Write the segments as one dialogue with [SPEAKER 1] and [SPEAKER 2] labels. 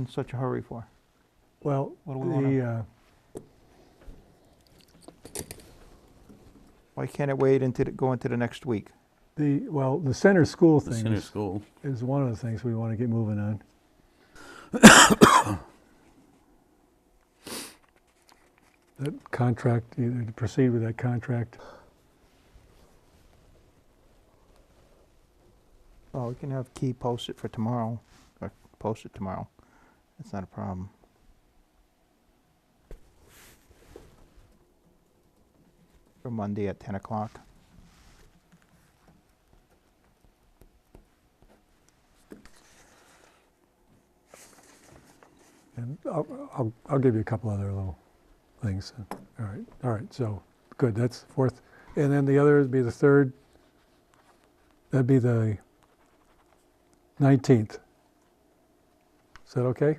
[SPEAKER 1] in such a hurry for?
[SPEAKER 2] Well,
[SPEAKER 1] What do we wanna-
[SPEAKER 2] the, uh,
[SPEAKER 1] Why can't it wait into, the- go into the next week?
[SPEAKER 2] the, well, the center school
[SPEAKER 3] The
[SPEAKER 2] thing
[SPEAKER 3] center
[SPEAKER 2] is,
[SPEAKER 3] school.
[SPEAKER 2] is one of the things we want to get moving on. That contract, either to proceed with that contract.
[SPEAKER 1] Oh, we can have Key post it for tomorrow, or post it tomorrow. That's not a problem. For Monday at ten o'clock.
[SPEAKER 2] And I'll, I'll, I'll give you a couple other little things. All right, all right, so, good, that's fourth. And then the other would be the third, that'd be the 19th. Is that okay?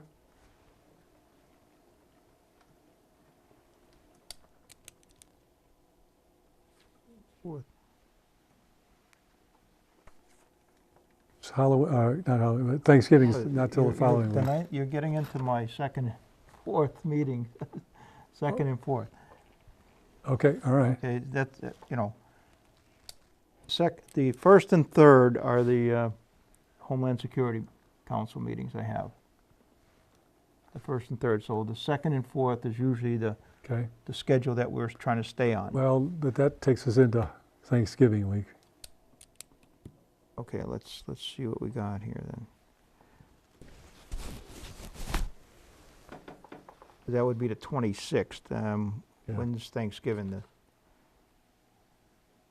[SPEAKER 2] It's Halloween, uh, not Halloween, but Thanksgiving's
[SPEAKER 1] But
[SPEAKER 2] not till
[SPEAKER 1] you're- you're-
[SPEAKER 2] the following week.
[SPEAKER 1] tonight- You're getting into my second, fourth meeting, second and fourth.
[SPEAKER 2] Okay, all right.
[SPEAKER 1] Okay, that's, uh, you know, sec, the first and third are the uh, Homeland Security Council meetings I have. The first and third, so the second and fourth is usually the,
[SPEAKER 2] Okay,
[SPEAKER 1] the schedule that we're trying to stay on.
[SPEAKER 2] well, but that takes us into Thanksgiving week.
[SPEAKER 1] Okay, let's, let's see what we got here then. That would be the twenty-sixth, um,
[SPEAKER 2] Yeah.
[SPEAKER 1] when's Thanksgiving, the?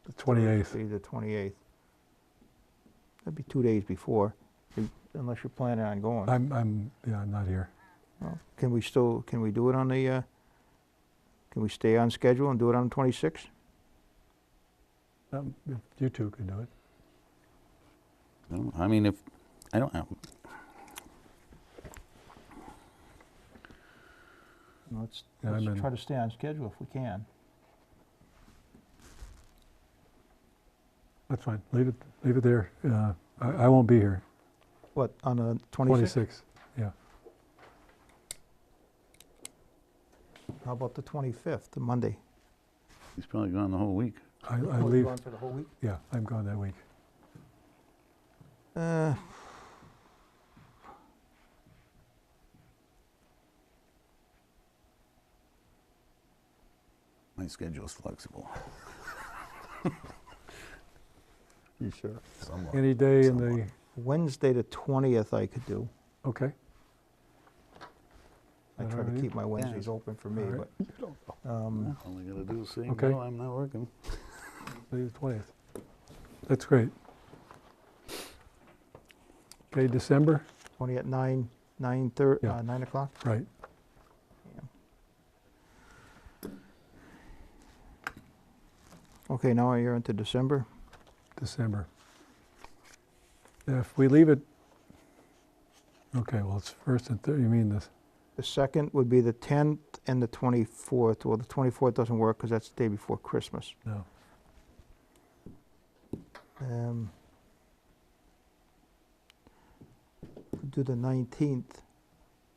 [SPEAKER 2] The 28th.
[SPEAKER 1] Thursday, The twenty-eighth. That'd be two days before, if- unless you're planning on going.
[SPEAKER 2] I'm, I'm, yeah, I'm not here.
[SPEAKER 1] Well, Can we still, can we do it on the, uh, can we stay on schedule and do it on the twenty-sixth?
[SPEAKER 2] Um, if You two can do it.
[SPEAKER 3] No, I mean, if I don't have,
[SPEAKER 1] Let's,
[SPEAKER 2] Yeah,
[SPEAKER 1] let's
[SPEAKER 2] I'm in.
[SPEAKER 1] try to stay on schedule if we can.
[SPEAKER 2] That's fine, leave it, leave it there. Uh, I, I won't be here.
[SPEAKER 1] What, on the twenty-sixth?
[SPEAKER 2] 26, yeah.
[SPEAKER 1] How about the twenty-fifth, the Monday?
[SPEAKER 3] he's probably gone the whole week.
[SPEAKER 2] I, I
[SPEAKER 1] Oh, you're
[SPEAKER 2] leave,
[SPEAKER 1] gone for the whole week?
[SPEAKER 2] yeah, I'm gone that week.
[SPEAKER 1] Uh,
[SPEAKER 3] My schedule's flexible.
[SPEAKER 1] you sure?
[SPEAKER 3] Somewhat.
[SPEAKER 2] Any day in the,
[SPEAKER 3] Somewhat.
[SPEAKER 1] Wednesday, the twentieth I could do.
[SPEAKER 2] okay,
[SPEAKER 1] I
[SPEAKER 2] That
[SPEAKER 1] try to
[SPEAKER 2] alright?
[SPEAKER 1] keep my Wednesdays open for me,
[SPEAKER 2] Alright.
[SPEAKER 1] but, um,
[SPEAKER 3] All I gotta do is say,
[SPEAKER 2] Okay.
[SPEAKER 3] no, I'm not working.
[SPEAKER 2] leave the 20th. That's great. Okay, December,
[SPEAKER 1] twenty at nine, nine thir,
[SPEAKER 2] Yeah.
[SPEAKER 1] uh, nine o'clock?
[SPEAKER 2] right.
[SPEAKER 1] Okay, now you're into December.
[SPEAKER 2] December. If we leave it, okay, well, it's first and third, you mean this,
[SPEAKER 1] The second would be the 10th and the 24th. Well, the 24th doesn't work because that's the day before Christmas.
[SPEAKER 2] no.
[SPEAKER 1] Um, could Do the 19th,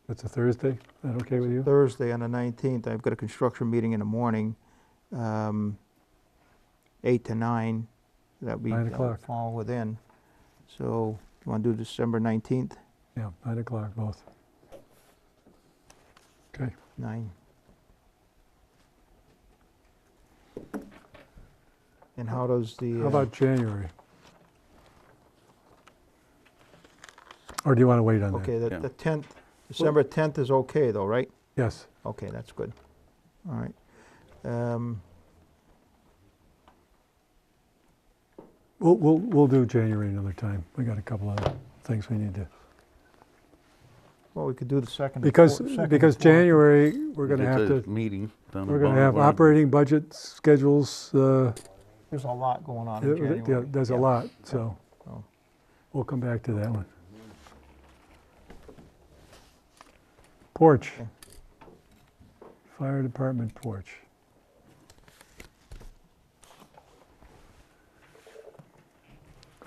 [SPEAKER 2] That's a Thursday, is that okay with you?
[SPEAKER 1] Thursday on the 19th. I've got a construction meeting in the morning, um, 8 to 9. That would be,
[SPEAKER 2] Nine
[SPEAKER 1] that would
[SPEAKER 2] o'clock.
[SPEAKER 1] fall within. So you want to do December 19th?
[SPEAKER 2] Yeah, nine o'clock both. Okay,
[SPEAKER 1] Nine. And how does the?
[SPEAKER 2] how
[SPEAKER 1] uh,
[SPEAKER 2] about January? Or do you want to wait on that?
[SPEAKER 1] Okay, the
[SPEAKER 3] Yeah.
[SPEAKER 1] the 10th, December 10th is okay though, right?
[SPEAKER 2] Yes,
[SPEAKER 1] Okay, that's good. All right. Um,
[SPEAKER 2] we'll, we'll, we'll do January another time. We got a couple other things we need to,
[SPEAKER 1] Well, we could do the second. and
[SPEAKER 2] because,
[SPEAKER 1] fourth- second and
[SPEAKER 2] because
[SPEAKER 1] fourth.
[SPEAKER 2] January, we're going to
[SPEAKER 3] It's
[SPEAKER 2] have
[SPEAKER 3] a
[SPEAKER 2] to,
[SPEAKER 3] Meeting. down in
[SPEAKER 2] we're going to have
[SPEAKER 3] Boulevard.
[SPEAKER 2] operating budget schedules, uh,
[SPEAKER 1] There's a lot going on in
[SPEAKER 2] Yeah,
[SPEAKER 1] January.
[SPEAKER 2] yeah, There's a
[SPEAKER 1] Yeah.
[SPEAKER 2] lot, so
[SPEAKER 1] Oh.
[SPEAKER 2] we'll come back to that one. Porch.
[SPEAKER 1] Okay.
[SPEAKER 2] Fire department porch.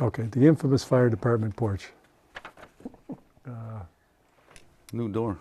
[SPEAKER 2] Okay, the infamous fire department porch. Uh,
[SPEAKER 3] new door.